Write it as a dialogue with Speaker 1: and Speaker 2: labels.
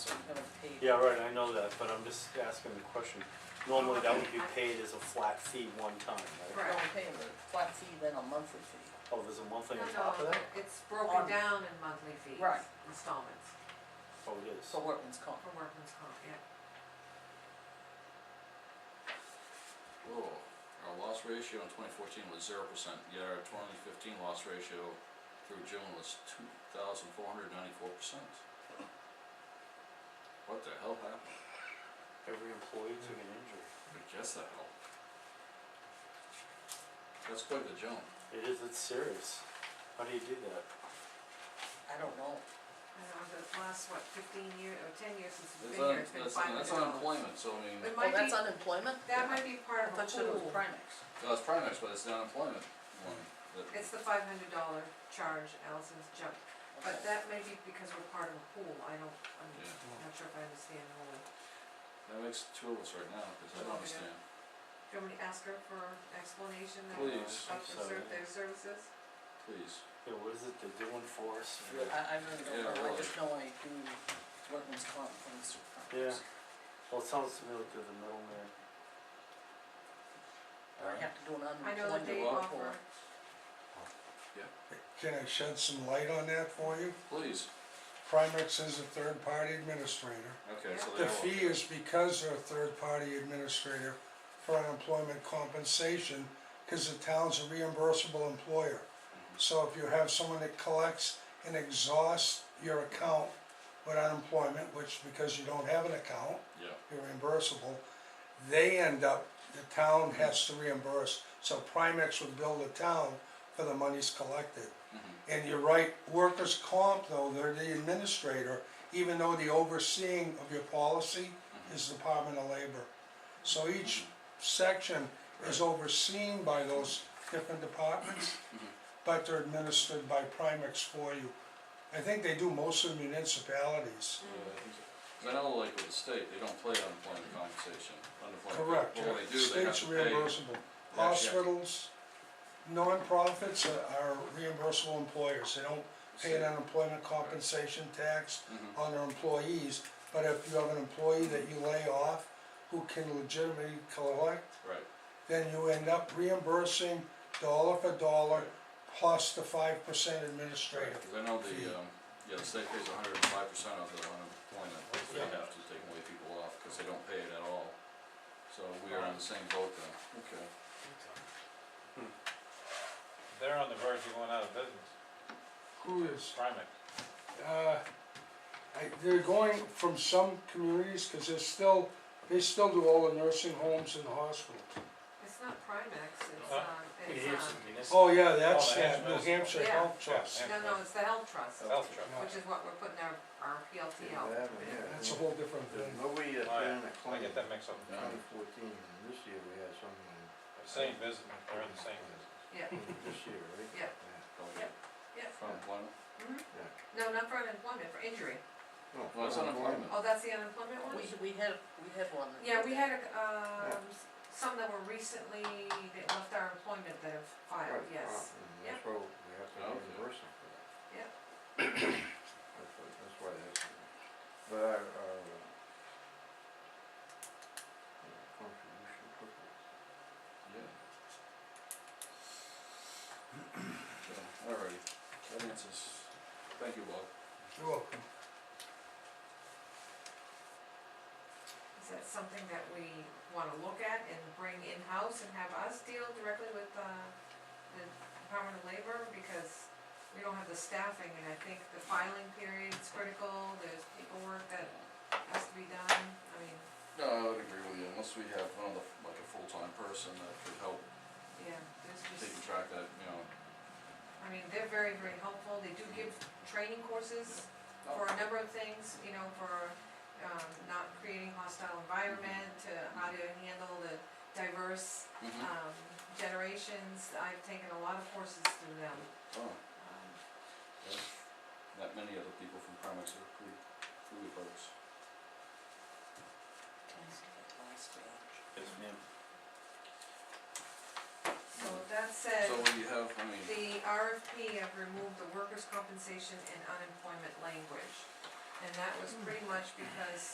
Speaker 1: Yeah, right, I know that, but I'm just asking the question. Normally, that would be paid as a flat fee one time, right?
Speaker 2: Right.
Speaker 3: Don't pay a flat fee, then a monthly fee.
Speaker 1: Oh, there's a monthly
Speaker 2: No,
Speaker 1: on
Speaker 2: no,
Speaker 1: top of that?
Speaker 2: it's broken
Speaker 3: On-
Speaker 2: down in monthly fees,
Speaker 3: Right.
Speaker 2: installments
Speaker 1: Oh, it is.
Speaker 3: For workman's comp.
Speaker 2: for workman's comp, yeah.
Speaker 4: Rural, our loss ratio in twenty fourteen was zero percent, yet our twenty fifteen loss ratio through June was two thousand four hundred ninety-four percent. What the hell happened?
Speaker 1: Every employee took an injury.
Speaker 4: I guess the hell. That's quite the jump.
Speaker 1: It is, it's serious. How do you do that?
Speaker 3: I don't know.
Speaker 2: I know, the last, what, fifteen years, or ten years since it's
Speaker 4: That's
Speaker 2: been
Speaker 4: un,
Speaker 2: here, it's been
Speaker 4: that's,
Speaker 2: five hundred
Speaker 4: that's
Speaker 2: dollars.
Speaker 4: unemployment, so I mean,
Speaker 2: It
Speaker 3: Oh,
Speaker 2: might be,
Speaker 3: that's unemployment?
Speaker 2: that might be
Speaker 3: I
Speaker 2: part of a
Speaker 3: thought you said it was
Speaker 2: pool.
Speaker 3: Primex.
Speaker 4: well, it's Primex, but it's the unemployment one, that,
Speaker 2: Mm-hmm. It's the five hundred dollar charge Allison's jump,
Speaker 3: Okay.
Speaker 2: but that may be because we're part of a pool, I don't, I'm
Speaker 4: Yeah.
Speaker 2: not sure if I understand the whole.
Speaker 4: that makes two of us right now, cause I
Speaker 2: Okay.
Speaker 4: don't
Speaker 2: Do
Speaker 4: understand.
Speaker 2: you want me to ask her for explanation then?
Speaker 4: Please.
Speaker 2: Of the ser-
Speaker 1: Sorry.
Speaker 2: their services?
Speaker 1: Um,
Speaker 4: Please,
Speaker 1: Yeah, what is it they're doing for us?
Speaker 3: I, I really don't
Speaker 4: Yeah,
Speaker 3: know, I
Speaker 4: really.
Speaker 3: just know I do workman's comp from the
Speaker 1: Yeah.
Speaker 3: supervisors.
Speaker 1: Well, it sounds to me like they're the middleman.
Speaker 3: Or I have to do an
Speaker 2: I know that
Speaker 3: unemployment
Speaker 2: they
Speaker 3: report.
Speaker 2: offer,
Speaker 5: Can I shed some light on that for you?
Speaker 4: please,
Speaker 5: Primex is a third-party administrator.
Speaker 4: okay, so they
Speaker 5: The
Speaker 4: all.
Speaker 5: fee is because they're a third-party administrator for unemployment compensation, cause the town's a reimbursable employer. So if you have someone that collects and exhausts your account with unemployment, which because you don't have an account,
Speaker 4: Yeah,
Speaker 5: you're reimbursable, they end up, the town has to reimburse, so Primex would bill the town for the monies collected.
Speaker 4: Mm-hmm,
Speaker 5: And you're right, workers' comp though, they're the administrator, even though the overseeing of your policy
Speaker 4: mm-hmm.
Speaker 5: is Department of Labor. So each section is overseen by those different departments, but they're administered by Primex for you. I think they do most of the municipalities.
Speaker 4: Yeah, I think so. 'Cause I know like with the state, they don't play unemployment compensation, unemployment.
Speaker 5: Correct,
Speaker 4: But when they do, they have
Speaker 5: state's
Speaker 4: to pay.
Speaker 5: reimbursable.
Speaker 4: Yeah, yeah.
Speaker 5: Hospitals, nonprofits are- are reimbursable employers, they don't pay an unemployment compensation tax
Speaker 4: Mhm.
Speaker 5: on their employees, but if you have an employee that you lay off who can legitimately collect,
Speaker 4: Right,
Speaker 5: then you end up reimbursing dollar for dollar plus the five percent administrative.
Speaker 4: cause I know the, um, yeah, the state pays hundred and five percent of the unemployment, if they
Speaker 5: Yeah.
Speaker 4: have to take away people off, cause they don't pay it at all. So we are on the same boat then. Okay.
Speaker 6: They're on the verge of going out of business,
Speaker 5: Who is,
Speaker 6: Primex.
Speaker 5: uh, I, they're going from some communities, cause they're still, they still do all the nursing homes and the hospitals.
Speaker 2: it's not Primex, it's,
Speaker 6: Huh?
Speaker 2: um, it's, um,
Speaker 5: Oh, yeah,
Speaker 6: Oh,
Speaker 5: that's
Speaker 6: the
Speaker 5: that, New
Speaker 6: Hampshire
Speaker 5: Hampshire
Speaker 2: Yeah.
Speaker 5: Health Trust,
Speaker 6: Yeah.
Speaker 2: uh, no, no, it's the health trust,
Speaker 6: Health truck.
Speaker 2: which is what we're putting our, our PLT out.
Speaker 5: that's a whole different thing.
Speaker 7: Nobody had
Speaker 6: Oh, yeah.
Speaker 7: been a
Speaker 6: I
Speaker 7: claim in
Speaker 6: get that mixed up.
Speaker 4: Yeah.
Speaker 7: twenty fourteen, and this year we had someone,
Speaker 6: Same business, they're in the same business.
Speaker 2: Yeah,
Speaker 7: this year, right?
Speaker 2: Yeah.
Speaker 4: Don't
Speaker 2: Yep. yeah,
Speaker 4: get Unemployment,
Speaker 2: mhm.
Speaker 7: Yeah.
Speaker 2: No, not for unemployment, for injury.
Speaker 7: No,
Speaker 4: well, it's unemployment.
Speaker 2: Oh, that's the unemployment one?
Speaker 3: We, we had, we had one. that
Speaker 2: Yeah,
Speaker 3: did
Speaker 2: we
Speaker 3: that.
Speaker 2: had, um, s- some that were recently, that left our employment that have filed,
Speaker 7: Right,
Speaker 2: yes.
Speaker 7: uh, And
Speaker 2: Yeah.
Speaker 7: that's why we have to
Speaker 4: Okay.
Speaker 7: reimburse them for that.
Speaker 2: Yeah.
Speaker 7: That's why, that's why they have to. But our, our, uh, uh, contribution total.
Speaker 4: Yeah. So, alrighty, that answers, thank you, Bob.
Speaker 5: You're welcome.
Speaker 2: Is that something that we wanna look at and bring in-house and have us deal directly with, uh, the Department of Labor? Because we don't have the staffing, and I think the filing period is critical, there's paperwork that has to be done, I mean,
Speaker 4: No, I would agree with you, unless we have another, like a full-time person that could help
Speaker 2: yeah, there's just.
Speaker 4: taking track that, you know,
Speaker 2: I mean, they're very, very helpful, they do give training courses for a number of things, you know, for, um, not creating hostile environment, to how to handle the diverse,
Speaker 4: mhm,
Speaker 2: um, generations, I've taken a lot of courses through them.
Speaker 4: oh,
Speaker 2: Um,
Speaker 4: yeah. That many other people from Primex are pretty, pretty folks.
Speaker 1: Yes, ma'am.
Speaker 2: So with that said,
Speaker 4: So you have, I mean,
Speaker 2: the RFP, I've removed the workers' compensation and unemployment language, and that was pretty much because